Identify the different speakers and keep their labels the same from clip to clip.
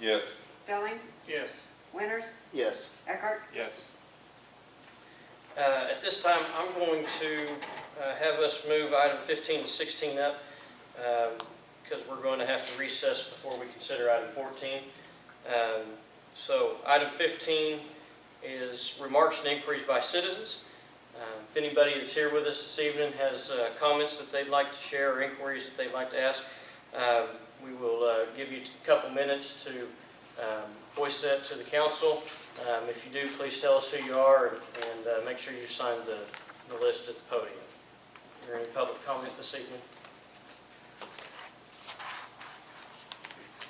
Speaker 1: Yes.
Speaker 2: Stelling,
Speaker 3: Yes.
Speaker 2: Winters,
Speaker 4: Yes.
Speaker 2: Eckhart,
Speaker 3: Yes.
Speaker 5: Uh, At this time, I'm going to uh, have us move item 15 to 16 up because we're going to have to recess before we consider item 14. Um, So item 15 is remarks and inquiries by citizens. Uh, If anybody that's here with us this evening has uh, comments that they'd like to share or inquiries that they'd like to ask, um, we will uh, give you a couple minutes to um, voice that to the council. Um, If you do, please tell us who you are and- and uh, make sure you sign the the list at the podium. Is there any public comment this evening?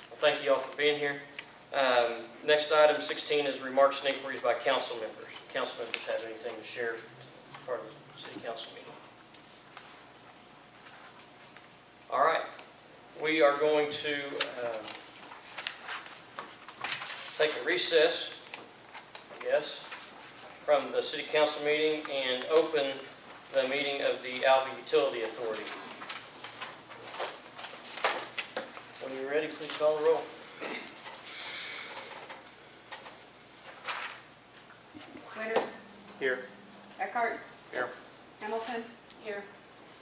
Speaker 5: Well, Thank you all for being here. Um, Next item, 16, is remarks and inquiries by council members. Council members have anything to share as part of the city council meeting? All right, we are going to um, take a recess yes, from the city council meeting and open the meeting of the Alva Utility Authority. When you're ready, please call the roll.
Speaker 2: Winters,
Speaker 3: Here.
Speaker 2: Eckhart.
Speaker 3: Here.
Speaker 2: Hamilton. Here.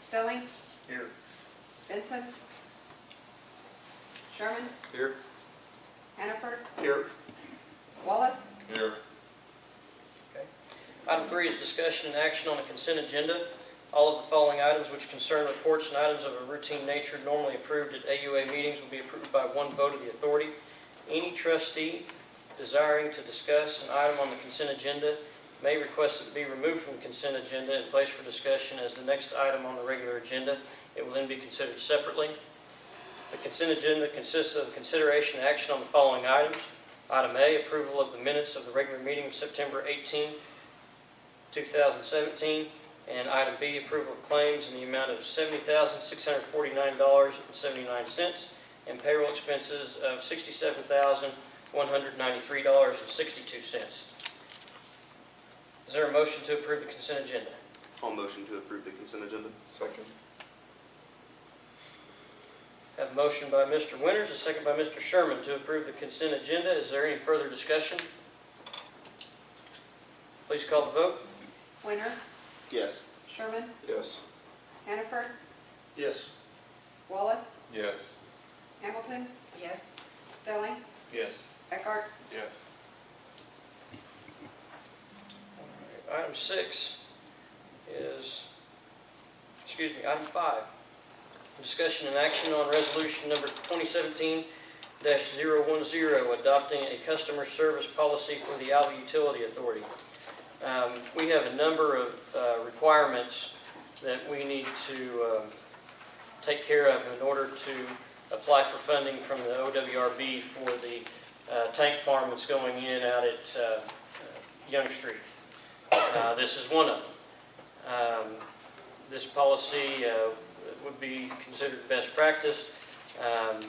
Speaker 2: Stelling,
Speaker 3: Here.
Speaker 2: Benson. Sherman,
Speaker 3: Here.
Speaker 2: Hannaford,
Speaker 3: Here.
Speaker 2: Wallace,
Speaker 1: Here.
Speaker 5: Item three is discussion and action on the consent agenda. All of the following items which concern reports and items of a routine nature normally approved at AUA meetings will be approved by one vote of the authority. Any trustee desiring to discuss an item on the consent agenda may request it be removed from the consent agenda and placed for discussion as the next item on the regular agenda. It will then be considered separately. The consent agenda consists of consideration and action on the following items. Item A, approval of the minutes of the regular meeting of September 18, 2017. And item B, approval of claims in the amount of $70,649.79 and payroll expenses of $67,193.62. Is there a motion to approve the consent agenda?
Speaker 4: All motion to approve the consent agenda?
Speaker 1: Second.
Speaker 5: Have a motion by Mr. Winters, a second by Mr. Sherman to approve the consent agenda. Is there any further discussion? Please call the vote.
Speaker 2: Winters,
Speaker 4: Yes.
Speaker 2: Sherman,
Speaker 1: Yes.
Speaker 2: Hannaford,
Speaker 3: Yes.
Speaker 2: Wallace,
Speaker 1: Yes.
Speaker 2: Hamilton. Yes. Stelling,
Speaker 3: Yes.
Speaker 2: Eckhart,
Speaker 1: Yes.
Speaker 5: Item six is, excuse me, item five, discussion and action on resolution number 2017-010, adopting a customer service policy for the Alva Utility Authority. Um, We have a number of uh, requirements that we need to um, take care of in order to apply for funding from the OWRB for the uh, tank farm that's going in out at uh, uh, Young Street. Uh, This is one of them. Um, This policy uh, would be considered best practice um,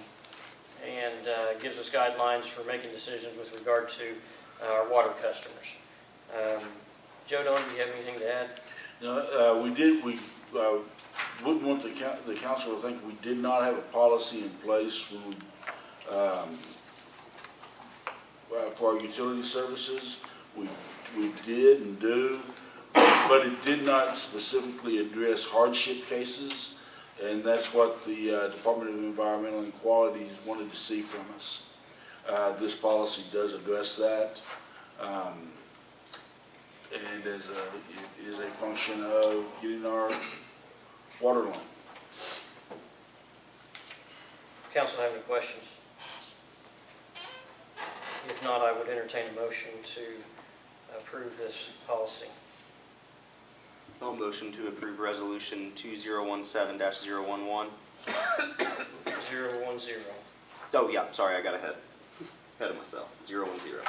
Speaker 5: and uh, gives us guidelines for making decisions with regard to uh, our water customers. Um, Joe Don, do you have anything to add?
Speaker 6: No, uh, we did, we, uh, wouldn't want the coun, the council to think we did not have a policy in place when, we, um, uh, for our utility services. We, we did and do, but it did not specifically address hardship cases. And that's what the, uh, Department of Environmental Equalities wanted to see from us. Uh, this policy does address that. Um, and is a, it is a function of getting our water line.
Speaker 5: Council have any questions? If not, I would entertain a motion to approve this policy.
Speaker 4: All motion to approve resolution two zero one seven dash zero one one.
Speaker 5: 010.
Speaker 4: Oh, yeah, sorry, I got ahead. Ahead of myself. Zero one zero.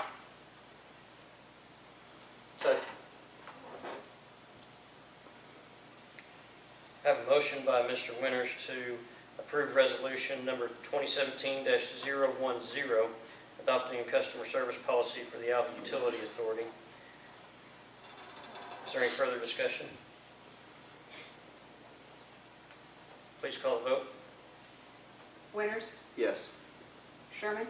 Speaker 3: Second.
Speaker 5: Have a motion by Mr. Winters to approve resolution number 2017-010, adopting a customer service policy for the Alva Utility Authority. Is there any further discussion? Please call the vote.
Speaker 2: Winters,
Speaker 4: Yes.
Speaker 2: Sherman,